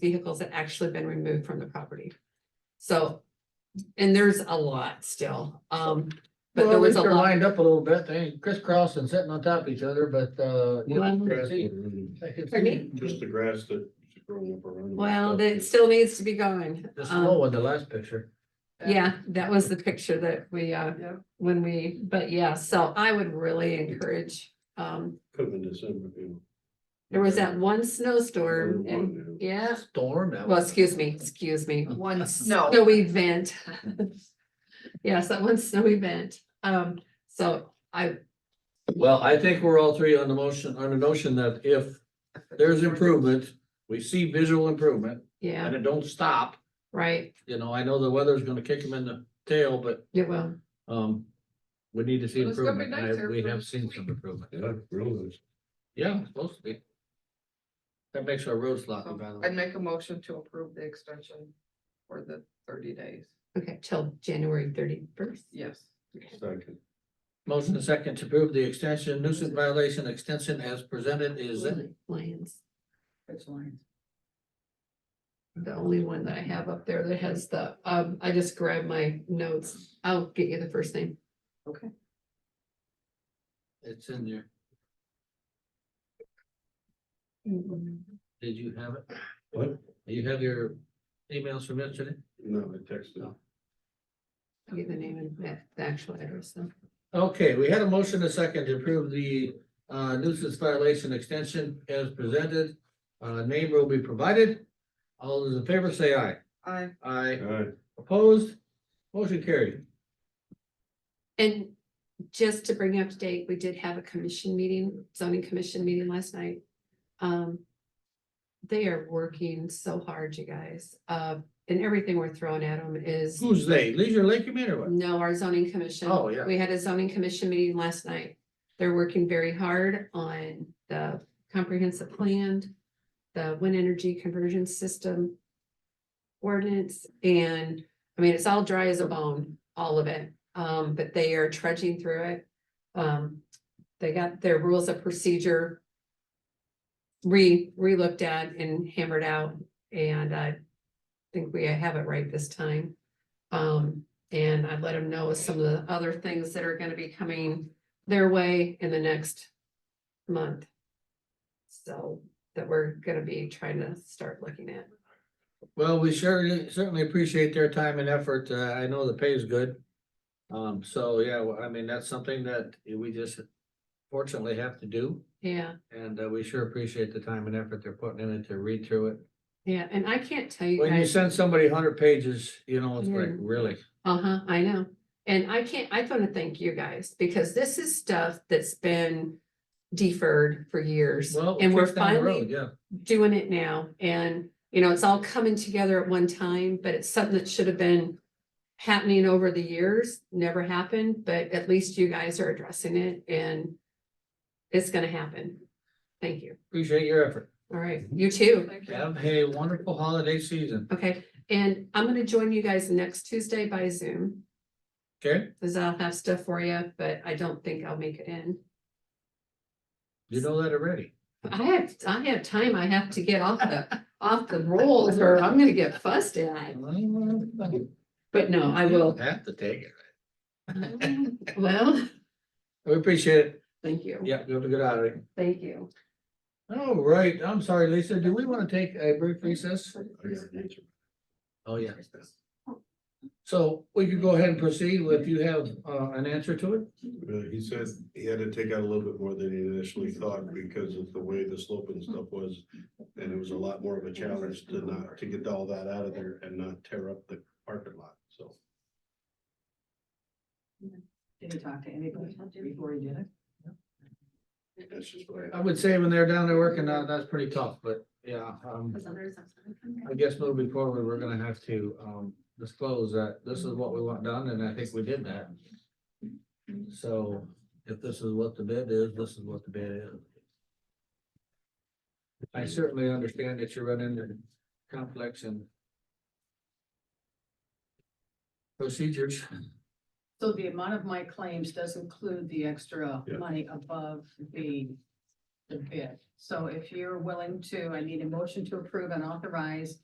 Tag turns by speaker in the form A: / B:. A: vehicles had actually been removed from the property. So, and there's a lot still, um, but there
B: Well, at
A: was
B: least
A: a
B: they're
A: lot.
B: lined up a little bit, they ain't crisscrossing, sitting on top of each other, but, uh. you
A: Well-
B: can see- I can
A: Pardon
B: see
C: Just the grass that is growing up around. it.
A: Well, that still needs to be going.
B: The slow
A: Um,
B: one, the last picture.
A: yeah, that was the picture that we, uh,
B: Yeah.
A: when we, but yeah, so I would really encourage, um,
C: Come in December, you know.
A: there was that one snowstorm and, yeah,
B: Storm. that
A: well,
B: was-
A: excuse me, excuse me,
D: One snow.
A: snow event. Yes, that one snow event. Um, so I,
E: Well, I think we're all three on the motion, on the notion that if there's improvement, we see visual improvement
A: yeah,
E: and it don't stop.
A: right,
E: You know, I know the weather's gonna kick them in the tail, but
A: it will.
E: um, we need to see
D: Well, it's gonna be
E: improvement. and I-
D: nicer
E: We
D: for
E: have
D: this
E: seen
D: week.
E: some improvement.
C: Yeah, really.
E: Yeah, it's supposed to be. That makes our roads sloppy, by the
D: I'd
E: way.
D: make a motion to approve the extension for the thirty days,
A: Okay, till January thirty-first.
D: yes.
C: Second.
E: Motion and second to approve the extension nuisance violation extension as presented is,
A: Lions,
D: It's lines.
A: the only one that I have up there that has the, um, I just grabbed my notes. I'll get you the first name.
E: it's in there.
F: Mm-hmm.
E: Did you have it?
C: What?
E: You have your emails from yesterday?
C: No, I texted.
A: I'll get the name and the- the actual address. so.
E: Okay, we had a motion a second to approve the uh nuisance violation extension as presented. Uh, name will be provided. All those in favor say aye.
D: I,
E: Aye.
C: Alright,
E: Opposed? Motion carried.
A: And just to bring you up to date, we did have a commission meeting, zoning commission meeting last night. Um. They are working so hard, you guys, uh, and everything we're throwing at them is,
E: Who's they? Leisure Lake Community or what?
A: no, our zoning commission.
E: Oh, yeah.
A: We had a zoning commission meeting last night. They're working very hard on the comprehensive plan, the wind energy conversion system. Ordinance and, I mean, it's all dry as a bone, all of it, um, but they are trudging through it. Um, they got their rules of procedure. Re, re-looked at and hammered out and I think we have it right this time. Um, and I'd let them know some of the other things that are gonna be coming their way in the next month. So that we're gonna be trying to start looking at.
E: Well, we certainly certainly appreciate their time and effort. Uh, I know the pay is good. Um, so yeah, well, I mean, that's something that we just fortunately have to do.
A: Yeah,
E: And uh, we sure appreciate the time and effort they're putting in it to read through it.
A: yeah, and I can't tell you
E: When you
A: guys,
E: send somebody hundred pages, you know, it's like,
A: Yeah.
E: really?
A: uh-huh, I know. And I can't, I want to thank you guys because this is stuff that's been deferred for years.
E: Well,
A: And we're
E: kick down the
A: finally
E: road, Yeah,
A: doing it now and, you know, it's all coming together at one time, but it's something that should have been happening over the years, never happened, but at least you guys are addressing it and it's gonna happen. Thank you.
E: appreciate your effort.
A: All right, you too.
D: thank you.
E: Have a wonderful holiday season,
A: Okay, and I'm gonna join you guys next Tuesday by Zoom,
E: okay?
A: cause I'll have stuff for you, but I don't think I'll make it in.
E: You know that already.
A: I have, I have time. I have to get off the, off the rolls or I'm gonna get fussed at, but no, I will.
E: Have to take it.
A: Well,
E: We appreciate it.
A: thank you.
E: Yeah, you have a good holiday.
A: Thank you.
E: All right, I'm sorry, Lisa, do we want to take a brief recess?
C: I got an answer.
E: Oh, yeah. So we could go ahead and proceed if you have uh an answer to it?
C: Uh, He said he had to take out a little bit more than he initially thought because of the way the slope and stuff was. And it was a lot more of a challenge to not, to get all that out of there and not tear up the parking lot, so.
F: Did you talk to anybody before you did it?
C: That's just what
E: I would say when they're down there working, uh, that's pretty tough, but yeah, um. I guess moving forward, we're gonna have to um disclose that this is what we want done, and I think we did that. So if this is what the bid is, this is what the bid is. I certainly understand that you run into conflicts and procedures.
F: So the amount of my claims does include the extra
C: Yeah.
F: money above the the bid. So if you're willing to, I need a motion to approve and authorize